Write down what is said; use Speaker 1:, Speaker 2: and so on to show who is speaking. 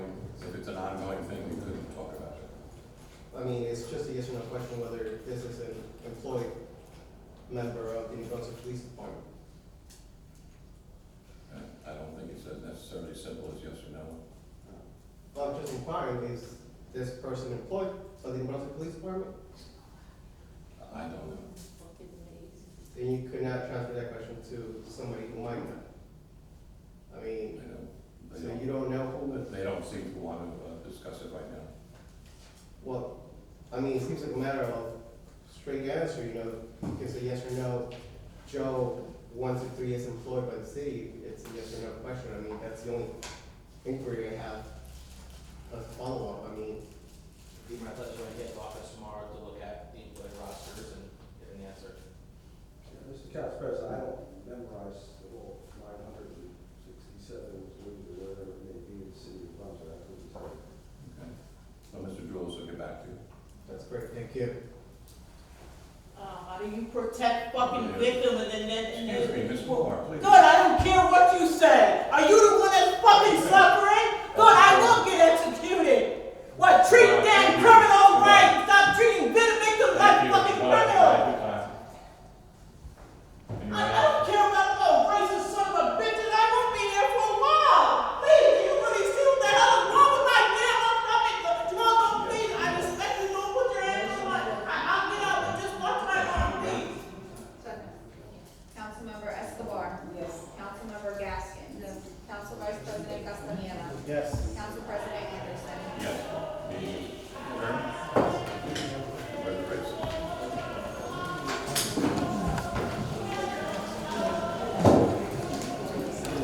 Speaker 1: it's an ongoing thing, we couldn't talk about it.
Speaker 2: I mean, it's just a yes or no question whether this is an employed member of the New Brunswick Police Department.
Speaker 1: And I don't think it's as necessarily simple as yes or no.
Speaker 2: Well, I'm just inquiring, is this person employed by the New Brunswick Police Department?
Speaker 1: I don't know.
Speaker 2: Then you could not transfer that question to somebody who might not. I
Speaker 1: They
Speaker 2: mean,
Speaker 1: don't,
Speaker 2: so
Speaker 1: they don't,
Speaker 2: you don't know who,
Speaker 1: they don't seem to want to uh, discuss it right now.
Speaker 2: well, I mean, it seems like a matter of straight answer, you know, it's a yes or no. Joe, one to three is employed by the city, it's a yes or no question, I mean, that's the only inquiry I have. A follow-up, I mean,
Speaker 3: Be my pleasure when I get to office tomorrow to look at the employee rosters and get an answer.
Speaker 4: Mr. Couch President, I don't memorize the whole nine hundred and sixty-seven, or whatever it may be, in the city of Brunswick, I couldn't tell you.
Speaker 1: Okay. So Mr. Jules will get back to you.
Speaker 2: that's great, thank you.
Speaker 5: Uh, how do you protect fucking victims and then, and then?
Speaker 1: Excuse me, Ms. Moore, please.
Speaker 5: Good, I don't care what you say. Are you the one that's fucking suffering? Good, I will get executed. What, treat them criminals right? Stop treating vi- victims
Speaker 1: Thank
Speaker 5: like
Speaker 1: you.
Speaker 5: fucking
Speaker 1: Bye.
Speaker 5: criminals.
Speaker 1: Bye. Bye. And
Speaker 5: I
Speaker 1: you're
Speaker 5: I
Speaker 1: right.
Speaker 5: don't care about no racist son of a bitch, and I won't be here for a while. Please, do you really see what the hell is wrong with my damn stomach? No, no, please, I respect you. Don't put your hands on my. I, I'll get out, but just watch my arm, please.
Speaker 6: Second. Councilmember Escobar. Yes. Councilmember Gaskin. Yes. Council Vice President Castaneda.
Speaker 2: Yes.